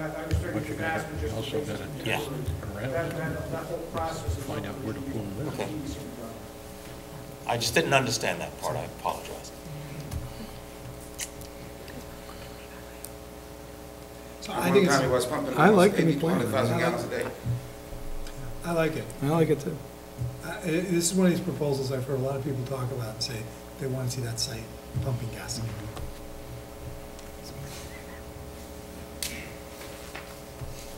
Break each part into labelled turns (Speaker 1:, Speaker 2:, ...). Speaker 1: I was thinking
Speaker 2: you gotta-
Speaker 1: the vast majority
Speaker 2: also
Speaker 1: of
Speaker 2: gotta
Speaker 1: the
Speaker 2: Yeah.
Speaker 1: cases.
Speaker 2: around
Speaker 1: That, that, that whole process is.
Speaker 2: Find out where to pull them
Speaker 1: Okay.
Speaker 3: I just didn't understand that part, I apologize.
Speaker 4: I think it's-
Speaker 5: Monroe County was pumping
Speaker 4: I like the
Speaker 5: maybe
Speaker 4: new plan.
Speaker 5: 200,000 gallons a day.
Speaker 4: I like it.
Speaker 6: I like it too.
Speaker 4: I- I- This is one of these proposals I've heard a lot of people talk about and say they want to see that site pumping gas.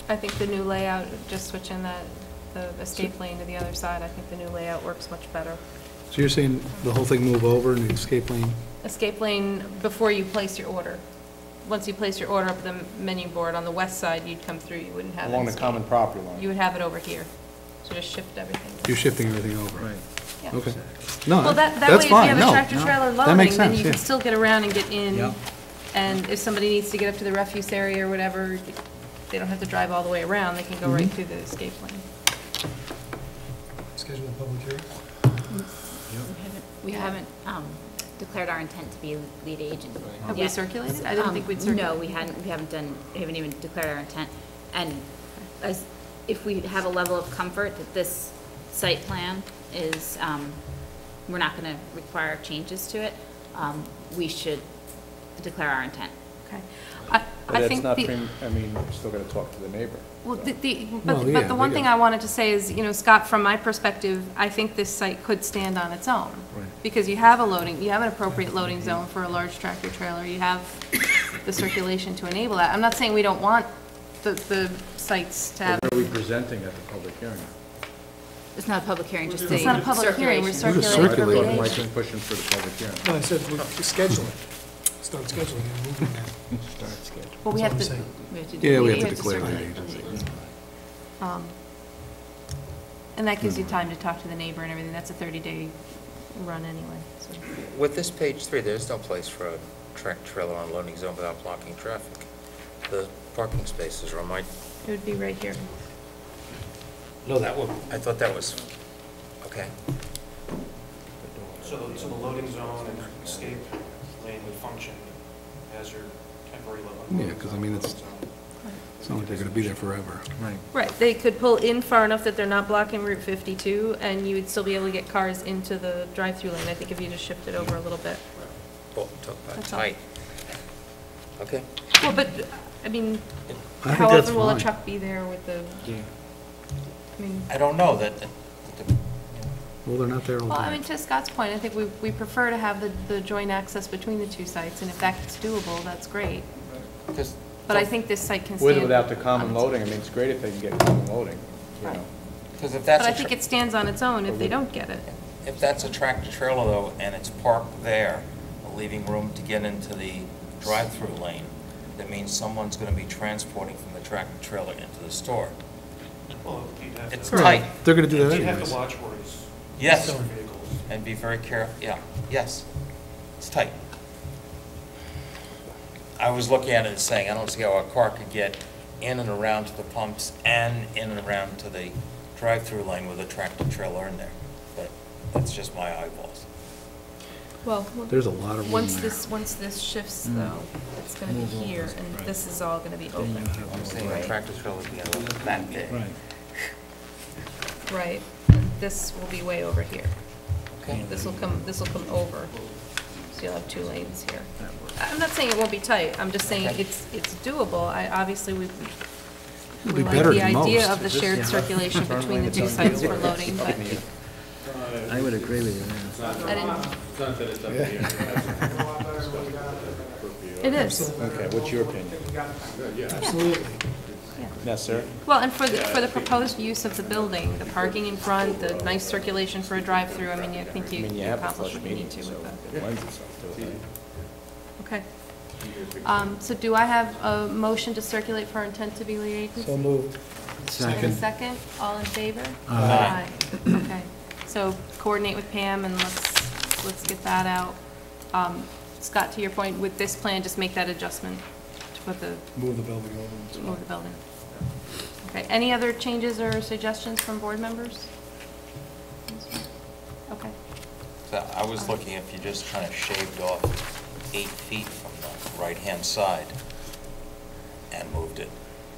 Speaker 7: I think the new layout, just switching that, the escape lane to the other side, I think the new layout works much better.
Speaker 6: So you're saying the whole thing move over and escape lane?
Speaker 7: Escape lane before you place your order. Once you place your order up the menu board on the west side, you'd come through, you wouldn't have it.
Speaker 8: along the common property line.
Speaker 7: You would have it over here. So just shift everything.
Speaker 6: You're shifting everything over? Right.
Speaker 7: Yeah.
Speaker 6: Okay. No,
Speaker 7: Well, that, that
Speaker 6: that's
Speaker 7: way, if you
Speaker 6: fine,
Speaker 7: have
Speaker 6: no.
Speaker 7: a tractor trailer
Speaker 6: That
Speaker 7: loading,
Speaker 6: makes
Speaker 7: then you
Speaker 6: sense,
Speaker 7: can
Speaker 6: yeah.
Speaker 7: still get around and get
Speaker 6: Yeah.
Speaker 7: in. And if somebody needs to get up to the refuse area or whatever, they don't have to drive all the way around, they can
Speaker 6: Mm-hmm.
Speaker 7: go right through the escape lane.
Speaker 4: Schedule a public hearing.
Speaker 9: We haven't um, declared our intent to be lead agent.
Speaker 7: Have we
Speaker 9: yet.
Speaker 7: circulated? I didn't think
Speaker 9: Um,
Speaker 7: we'd circulate.
Speaker 9: No, we hadn't, we haven't done, we haven't even declared our intent. And as, if we have a level of comfort that this site plan is, um, we're not going to require changes to it, um, we should declare our intent.
Speaker 7: Okay. I,
Speaker 8: But
Speaker 7: I
Speaker 8: that's
Speaker 7: think
Speaker 8: not,
Speaker 7: the,
Speaker 8: prim- I mean, we're still gotta talk to the neighbor.
Speaker 7: well,
Speaker 8: so.
Speaker 7: the- the,
Speaker 6: Well,
Speaker 7: but,
Speaker 6: yeah,
Speaker 7: but the
Speaker 6: we
Speaker 7: one thing
Speaker 6: got-
Speaker 7: I wanted to say is, you know, Scott, from my perspective, I think this site could stand on its own.
Speaker 6: Right.
Speaker 7: Because you have a loading, you have an appropriate loading zone for a large tractor trailer, you have the circulation to enable that. I'm not saying we don't want the, the sites to have,
Speaker 8: What are we presenting at the public hearing?
Speaker 9: It's not a public hearing, just a
Speaker 7: it's not a public hearing, we're
Speaker 9: circulation.
Speaker 6: We're just
Speaker 7: circulating
Speaker 6: circulating.
Speaker 7: for lead
Speaker 8: I
Speaker 7: agent.
Speaker 8: thought Mike was pushing for the public hearing.
Speaker 4: No, I said we schedule it. Start scheduling and moving that.
Speaker 7: Well, we
Speaker 4: That's what
Speaker 7: have to,
Speaker 4: I'm
Speaker 9: We have to do-
Speaker 6: Yeah, we
Speaker 7: we
Speaker 6: have to
Speaker 7: have to
Speaker 6: declare lead
Speaker 7: circulate.
Speaker 6: agency.
Speaker 7: um, and that gives you time to talk to the neighbor and everything, that's a 30-day run anyway, so.
Speaker 10: With this page three, there's no place for a track trailer on loading zone without blocking traffic. The parking spaces are on my,
Speaker 7: It would be right here.
Speaker 10: no, that one, I thought that was, okay.
Speaker 1: So, the- so the loading zone and escape lane would function as your temporary level.
Speaker 6: Yeah, 'cause I mean, it's- It's not like they're gonna be there forever.
Speaker 8: Right.
Speaker 7: Right, they could pull in far enough that they're not blocking Route 52, and you would still be able to get cars into the drive-through lane, I think if you just shift it over a little bit.
Speaker 10: Well, talk about
Speaker 7: That's all.
Speaker 10: tight. Okay.
Speaker 7: Well, but, I mean,
Speaker 6: I think that's
Speaker 7: however will a
Speaker 6: fine.
Speaker 7: truck be there with the, I mean,
Speaker 3: I don't know that, that- that the-
Speaker 6: Well, they're not there all
Speaker 7: well, I mean,
Speaker 6: day.
Speaker 7: to Scott's point, I think we, we prefer to have the, the joint access between the two sites, and if that's doable, that's great.
Speaker 3: because
Speaker 7: But I think this site can stand.
Speaker 8: With or without the
Speaker 7: on
Speaker 8: common
Speaker 7: its own.
Speaker 8: loading, I mean, it's great if they can get common loading, you
Speaker 7: Right.
Speaker 8: know.
Speaker 3: Because if
Speaker 7: But
Speaker 3: that's.
Speaker 7: I
Speaker 3: a
Speaker 7: think
Speaker 3: tra-
Speaker 7: it stands on its own if they don't get it.
Speaker 3: If that's a tractor trailer though, and it's parked there, leaving room to get into the drive-through lane, that means someone's gonna be transporting from the tractor trailer into the store.
Speaker 1: Well, you'd have to.
Speaker 3: It's
Speaker 6: Right.
Speaker 3: tight,
Speaker 6: They're gonna do that
Speaker 1: You'd have
Speaker 6: anyways.
Speaker 1: to watch where it's.
Speaker 3: Yes.
Speaker 1: stored Vehicles.
Speaker 3: and be very careful, yeah, yes, it's tight. I was looking at it and saying, I don't see how a car could get in and around to the pumps and in and around to the drive-through lane with a tractor trailer in there, but that's just my eyeballs.
Speaker 7: Well.
Speaker 6: There's a lot of room
Speaker 7: Once
Speaker 6: there. Mm.
Speaker 7: this, once this shifts though, it's gonna be here and this is all gonna be open.
Speaker 10: I'm saying a tractor trailer would be about that big.
Speaker 7: Right, and this will be way over here.
Speaker 10: Okay.
Speaker 7: This will come, this will come over, so you'll have two lanes here. I'm not saying it won't be tight, I'm just saying
Speaker 10: Okay.
Speaker 7: it's, it's doable. I, obviously, we,
Speaker 6: It'll
Speaker 7: we
Speaker 6: be
Speaker 7: like
Speaker 6: better
Speaker 7: the
Speaker 6: than most.
Speaker 7: idea of the shared circulation between the two sites for loading, but
Speaker 2: I would agree with you, yeah.
Speaker 7: I didn't. It is,
Speaker 8: Okay, what's your opinion?
Speaker 4: Absolutely.
Speaker 8: Necessary?
Speaker 7: well, and for the, for the proposed use of the building, the parking in front, the nice circulation for a drive-through, I mean, I think
Speaker 8: I
Speaker 7: you
Speaker 8: mean, you
Speaker 7: you
Speaker 8: have a
Speaker 7: accomplish
Speaker 8: flush
Speaker 7: what you
Speaker 8: meeting,
Speaker 7: need to
Speaker 8: so
Speaker 7: with that.
Speaker 8: it lends itself to it. right?
Speaker 7: Okay. Um, so do I have a motion to circulate for intent to be lead agency?
Speaker 4: So moved.
Speaker 7: And a second, all in favor?
Speaker 3: Aye.
Speaker 7: Aye. Okay, so coordinate with Pam and let's, let's get that out. Um, Scott, to your point, with this plan, just make that adjustment to put the,
Speaker 4: Move the building over.
Speaker 7: move the building. Okay, any other changes or suggestions from board members? Okay,
Speaker 3: So I was looking, if you just kind of shaved off eight feet from the right-hand side and moved it,